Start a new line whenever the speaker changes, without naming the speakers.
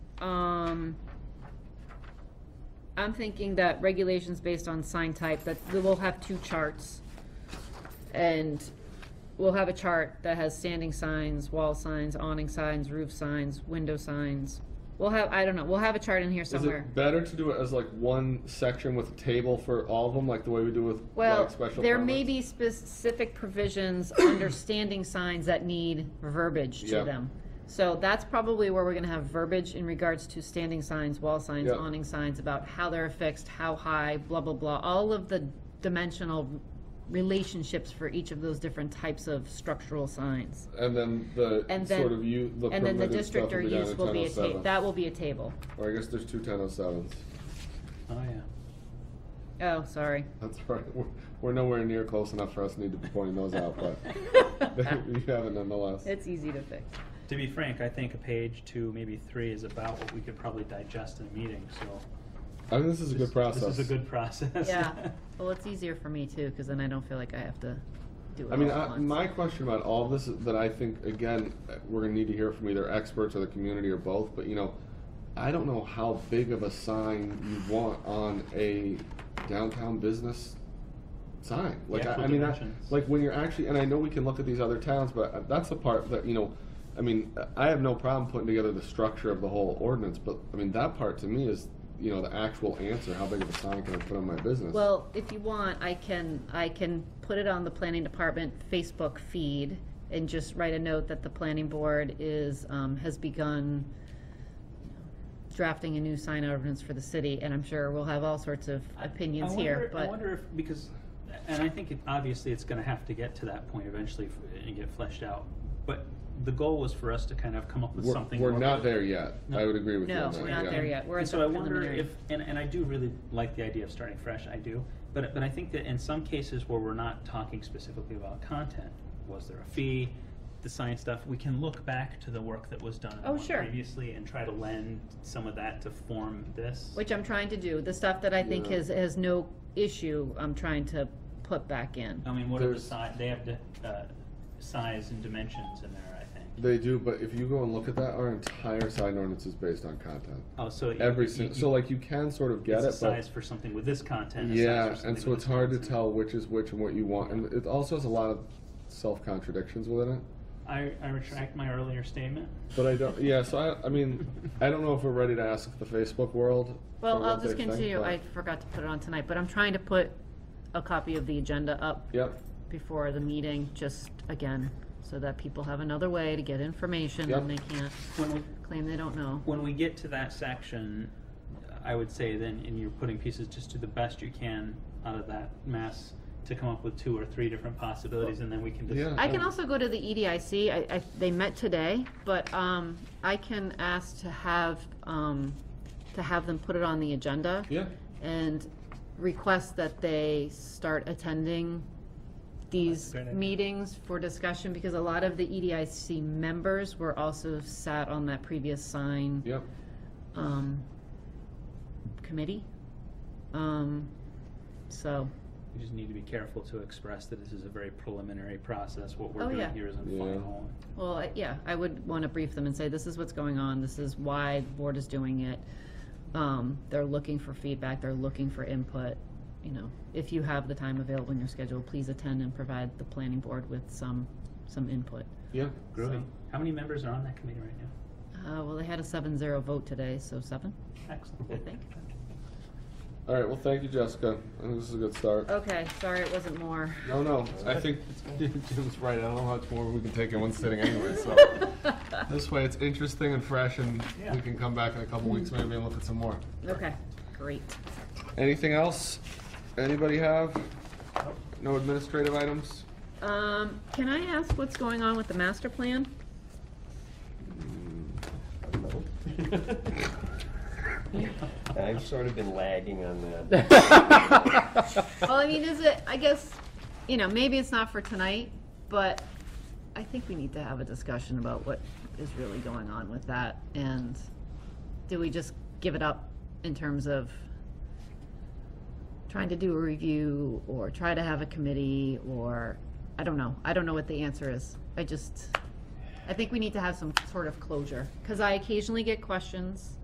Um, I'm thinking that regulations based on sign type, that we will have two charts. And we'll have a chart that has standing signs, wall signs, awning signs, roof signs, window signs. We'll have, I don't know, we'll have a chart in here
Is
somewhere.
it better to do it as like one section with a table for all of them, like the way we do with
Well,
like special
there may
permits?
be specific provisions under standing signs that need verbiage
Yeah.
to them. So that's probably where we're gonna have verbiage in regards to standing signs, wall signs,
Yeah.
awning signs, about how they're affixed, how high, blah, blah, blah. All of the dimensional relationships for each of those different types of structural signs.
And then the
And then-
sort of you the
And then the
permitted
district
stuff
or
will be down
use
to
will be a ta,
1007.
that will be a table.
Or I guess there's two 1007s.
Oh, yeah.
Oh, sorry.
That's all right. We're, we're nowhere near close enough for us to need to be pointing those out, but you have it nonetheless.
It's easy to fix.
To be frank, I think a page two, maybe three is about what we could probably digest in a meeting, so.
I think this is a
this-
good process.
This is a good process.
Yeah, well, it's easier for me too, because then I don't feel like I have to do it
I mean,
all at
I,
once.
my question about all this is that I think again we're gonna need to hear from either experts or the community or both. But you know, I don't know how big of a sign you want on a downtown business sign. Like
The
I,
actual
I mean, I,
dimensions.
like when you're actually, and I know we can look at these other towns, but that's the part that you know. I mean, I have no problem putting together the structure of the whole ordinance, but I mean that part to me is you know the actual answer. How big of a sign can I put on my business?
Well, if you want, I can, I can put it on the planning department Facebook feed and just write a note that the planning board is, um, has begun drafting a new sign ordinance for the city, and I'm sure we'll have all sorts of
I-
opinions
I
here,
wonder- I
but,
wonder if, because, and I think it, obviously it's gonna have to get to that point eventually f- and get fleshed out. But the goal was for us to kind of come up with
we're,
something.
we're
more-
not there yet. I would agree with you.
no,
on that,
we're not
yeah.
there yet, we're
And
at
so I
the
wonder
preliminary.
if, and, and I do really like the idea of starting fresh, I do. But, but I think that in some cases where we're not talking specifically about content, was there a fee, the science stuff, we can look back to the work that was done in the
Oh,
one
sure.
previously and try to lend some of that to form this.
Which I'm trying to do, the stuff that I think
Yeah.
has, has no issue, I'm trying to put back in.
I mean, what are the
There's-
si, they have the, uh, size and dimensions in there, I think.
They do, but if you go and look at that, our entire sign ordinance is based on content.
Oh, so. you-
Every
you-
single,
you-
so like you can sort of get
It's a
it,
size
but
for something with this content. a size for
yeah,
something
and so
with
it's
this
hard to
content.
tell which is which and what you want, and it also has a lot of self contradictions within it.
I, I retract my earlier statement.
But I don't, yeah. So I, I mean, I don't know if we're ready to ask the Facebook world. for
Well,
what
I'll just
they think,
continue,
but-
I forgot to put it on tonight, but I'm trying to put a copy of the agenda up
Yep.
before the meeting, just again, so that people have another way to get information and they
Yep.
can't
When we,
claim they don't know.
when we get to that section, I would say then, and you're putting pieces, just do the best you can out of that mess to come up with two or three different possibilities, and then we can just.
Yeah.
I can also go to the EDIC, I, I, they met today, but, um, I can ask to have, um, to have them put it on the agenda.
Yeah.
and request that they start attending these
That's a great idea.
meetings for discussion, because a lot of the E EDIC members were also sat on that previous sign,
Yep.
um, committee. Um, so,
We just need to be careful to express that this is a very preliminary process. What
Oh,
we're doing
yeah.
here isn't
Yeah.
final.
well, I- yeah, I would wanna brief them and say, this is what's going on, this is why the board is doing it. Um, they're looking for feedback, they're looking for input, you know, if you have the time available in your schedule, please attend and provide the planning board with some, some input.
Yeah.
Groovy.
So-
How many members are on that committee right now?
Uh, well, they had a seven zero vote today, so seven, I
Excellent.
think.
All right. Well, thank you, Jessica. I think this is a good start.
Okay, sorry it wasn't more.
No, no. I think Jim's right. I don't know how much more we can take in one sitting anyway. So this way, it's interesting and fresh, and
Yeah. Mm-hmm.
we can come back in a couple weeks maybe and look at some more.
Okay, great.
Anything else? Anybody have?
Nope.
No administrative items?
Um, can I ask what's going on with the master plan?
I've sort of been lagging on that.
Well, I mean, is it, I guess, you know, maybe it's not for tonight, but I think we need to have a discussion about what is really going on with that. And do we just give it up in terms of trying to do a review or try to have a committee or, I don't know. I don't know what the answer is. I just, I think we need to have some sort of closure. Because I occasionally get questions